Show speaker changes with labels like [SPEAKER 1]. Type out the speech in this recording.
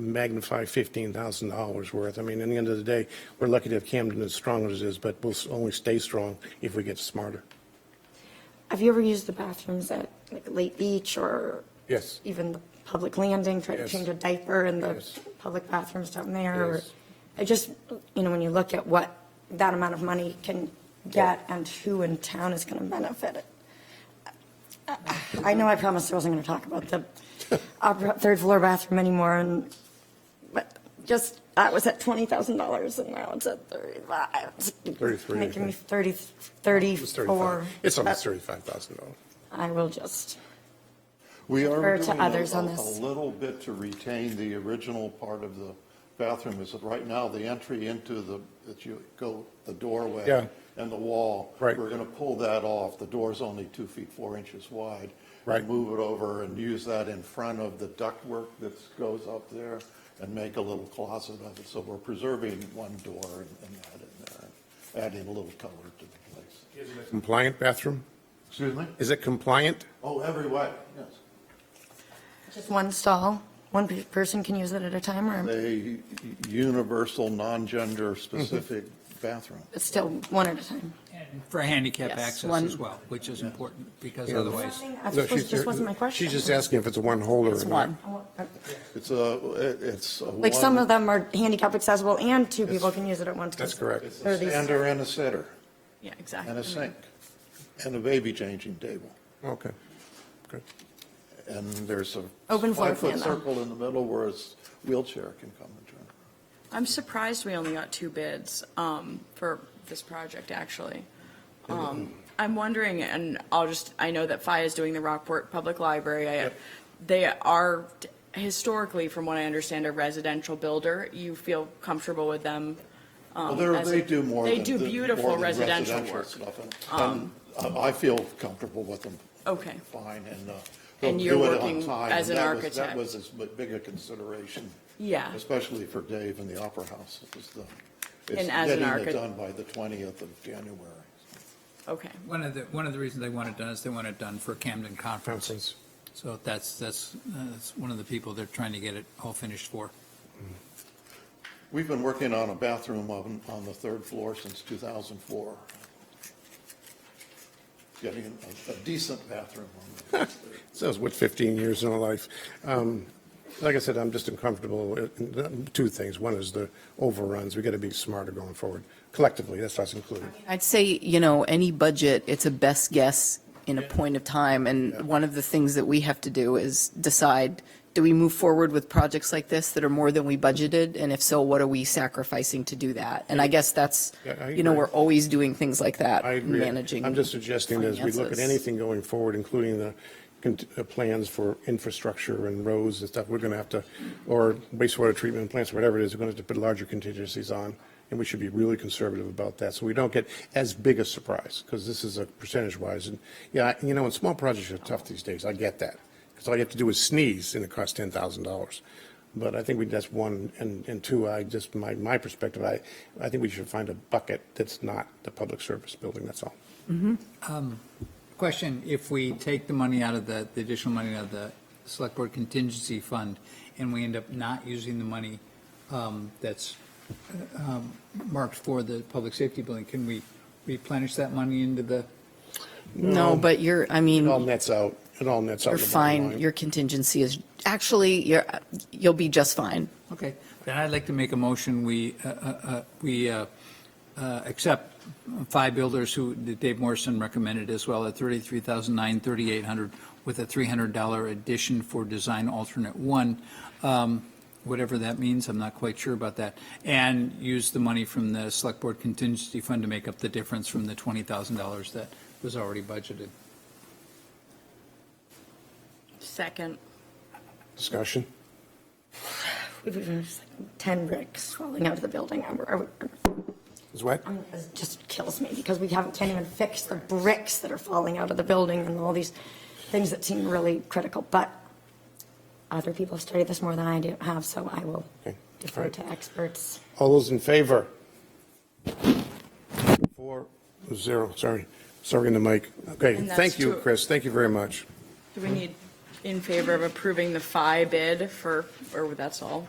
[SPEAKER 1] magnify $15,000 worth. I mean, in the end of the day, we're lucky to have Camden as strong as it is, but we'll s- only stay strong if we get smarter.
[SPEAKER 2] Have you ever used the bathrooms at like Lake Beach or
[SPEAKER 1] Yes.
[SPEAKER 2] even the public landing, try to
[SPEAKER 1] Yes.
[SPEAKER 2] change a diaper in the
[SPEAKER 1] Yes.
[SPEAKER 2] public bathrooms down there? or-
[SPEAKER 1] Yes.
[SPEAKER 2] I just, you know, when you look at what that amount of money can get and who in town is going to benefit it. I know I promised I wasn't going to talk about the upper- third floor bathroom anymore and, but just, I was at $20,000 and now it's at 35. It's
[SPEAKER 1] 33, I
[SPEAKER 2] Making me
[SPEAKER 1] think.
[SPEAKER 2] 30,
[SPEAKER 1] It's
[SPEAKER 2] 34.
[SPEAKER 1] 35 It's almost
[SPEAKER 2] But-
[SPEAKER 1] $35,000.
[SPEAKER 2] I will just,
[SPEAKER 3] We
[SPEAKER 2] Refer
[SPEAKER 3] are
[SPEAKER 2] to
[SPEAKER 3] doing
[SPEAKER 2] others on
[SPEAKER 3] a- a
[SPEAKER 2] this.
[SPEAKER 3] little bit to retain the original part of the bathroom, is that right now, the entry into the, that you go, the
[SPEAKER 1] Yeah.
[SPEAKER 3] doorway and the wall.
[SPEAKER 1] Right.
[SPEAKER 3] We're going to pull that off. The door's only two feet, four inches wide.
[SPEAKER 1] Right.
[SPEAKER 3] Move it over and use that in front of the ductwork that goes up there and make a little closet of it. So we're preserving one door and and that in there, adding a little color to the place.
[SPEAKER 1] Compliant bathroom?
[SPEAKER 3] Excuse me?
[SPEAKER 1] Is it compliant?
[SPEAKER 3] Oh, every way, yes.
[SPEAKER 2] just one stall, one pe- person can use it at a time or
[SPEAKER 3] a universal, non-gender specific bathroom.
[SPEAKER 2] it's still one at a time?
[SPEAKER 4] And For handicap
[SPEAKER 5] Yes,
[SPEAKER 4] access
[SPEAKER 5] one-
[SPEAKER 4] as well, which is important, because
[SPEAKER 2] That's
[SPEAKER 4] otherwise,
[SPEAKER 1] No,
[SPEAKER 2] supposed-
[SPEAKER 1] she's-
[SPEAKER 2] just wasn't my question.
[SPEAKER 1] She's just asking if it's a one holder.
[SPEAKER 5] It's
[SPEAKER 1] or not.
[SPEAKER 5] one.
[SPEAKER 2] I want-
[SPEAKER 3] It's a, it- it's a one.
[SPEAKER 2] Like some of them are handicap accessible and two people can use it at once. 'cause
[SPEAKER 1] That's correct.
[SPEAKER 3] It's
[SPEAKER 2] there are
[SPEAKER 3] a
[SPEAKER 2] these-
[SPEAKER 3] stander and a sitter,
[SPEAKER 5] Yeah, exactly.
[SPEAKER 3] and a sink, and a baby changing table.
[SPEAKER 1] Okay. Good.
[SPEAKER 3] And there's a.
[SPEAKER 2] Open floor plan,
[SPEAKER 3] Five-foot
[SPEAKER 2] though.
[SPEAKER 3] circle in the middle where a s- wheelchair can come and turn.
[SPEAKER 5] I'm surprised we only got two bids um, for this project, actually. Um, I'm wondering, and I'll just, I know that FI is doing the Rockport Public Library. I- They are historically, from what I understand, a residential builder. You feel comfortable with them?
[SPEAKER 3] Well, they're-
[SPEAKER 5] as
[SPEAKER 3] they
[SPEAKER 5] a-
[SPEAKER 3] do more
[SPEAKER 5] they
[SPEAKER 3] than.
[SPEAKER 5] do
[SPEAKER 3] than-
[SPEAKER 5] beautiful
[SPEAKER 3] more than
[SPEAKER 5] residential work.
[SPEAKER 3] stuff. And, um, I I feel comfortable with them.
[SPEAKER 5] Okay.
[SPEAKER 3] Fine, and. uh,
[SPEAKER 5] And
[SPEAKER 3] they'll
[SPEAKER 5] you're
[SPEAKER 3] do it on
[SPEAKER 5] working
[SPEAKER 3] time,
[SPEAKER 5] as
[SPEAKER 3] and
[SPEAKER 5] an
[SPEAKER 3] that was-
[SPEAKER 5] architect.
[SPEAKER 3] That was as bu- big a consideration.
[SPEAKER 5] Yeah.
[SPEAKER 3] Especially for Dave and the Opera House, it was the. it's
[SPEAKER 5] And as an
[SPEAKER 3] Getting
[SPEAKER 5] archi-
[SPEAKER 3] it done by the 20th of January.
[SPEAKER 5] Okay.
[SPEAKER 4] one of the, one of the reasons they want it done is they want it done for Camden Conference.
[SPEAKER 1] Conference.
[SPEAKER 4] So that's, that's, uh, that's one of the people they're trying to get it all finished for.
[SPEAKER 3] We've been working on a bathroom on, on the third floor since 2004. Getting a- a decent bathroom on the.
[SPEAKER 1] So it's what, 15 years in a life. Um, Like I said, I'm just uncomfortable with two things. One is the overruns. We got to be smarter going forward collectively. That's us included.
[SPEAKER 5] I'd say, you know, any budget, it's a best guess in a point of time,
[SPEAKER 3] Yeah.
[SPEAKER 5] and one of the things that we have to do is decide, do we move forward with projects like this that are more than we budgeted, and if so, what are we sacrificing to do that? And I guess that's,
[SPEAKER 1] Yeah, I
[SPEAKER 5] you know,
[SPEAKER 1] agree.
[SPEAKER 5] we're always doing things like that,
[SPEAKER 1] I agree.
[SPEAKER 5] managing.
[SPEAKER 1] I'm just suggesting that as we look at
[SPEAKER 5] finances.
[SPEAKER 1] anything going forward, including the con- uh, plans for infrastructure and roads and stuff, we're going to have to, or wastewater treatment plants, whatever it is, we're going to have to put larger contingencies on, and we should be really conservative about that, so we don't get as big a surprise, because this is a percentage-wise, and, yeah, I- you know, and small projects are tough these days, I get that, because all you have to do is sneeze, and it costs ten thousand dollars. But I think we, that's one, and, and two, I just, my, my perspective, I, I think we should find a bucket that's not the public service building, that's all.
[SPEAKER 4] Um, Question, if we take the money out of the, the additional money out of the select board contingency fund, and we end up not using the money um, that's um, marked for the public safety building, can we replenish that money into the?
[SPEAKER 5] No, but you're, I
[SPEAKER 1] Um,
[SPEAKER 5] mean.
[SPEAKER 1] It Mm. all nets out, it all nets out.
[SPEAKER 5] You're
[SPEAKER 1] in the bottom
[SPEAKER 5] fine.
[SPEAKER 1] line.
[SPEAKER 5] Your contingency is, actually, you're, you'll be just fine.
[SPEAKER 4] Okay, then I'd like to make a motion, we, uh, uh, uh, we uh, uh, accept five builders who that Dave Morrison recommended as well at $33,900, $3,800 with a $300 addition for design alternate one, um, whatever that means, I'm not quite sure about that, and use the money from the select board contingency fund to make up the difference from the $20,000 that was already budgeted.
[SPEAKER 5] Second.
[SPEAKER 1] Discussion?
[SPEAKER 2] We've even just, like, 10 bricks falling out of the building. I'm- I'm-
[SPEAKER 1] Is what?
[SPEAKER 2] I'm- It just kills me because we haven't, can't even fix the bricks that are falling out of the building and all these things that seem really critical. But other people have studied this more than I do have, so I will
[SPEAKER 1] Okay. All
[SPEAKER 2] defer
[SPEAKER 1] right.
[SPEAKER 2] to experts.
[SPEAKER 1] All those in favor? Four, zero, sorry, sorry in the mic. Okay,
[SPEAKER 5] And that's
[SPEAKER 1] thank you,
[SPEAKER 5] to-
[SPEAKER 1] Chris, thank you very much.
[SPEAKER 5] Do we need in favor of approving the FI bid for, or that's all?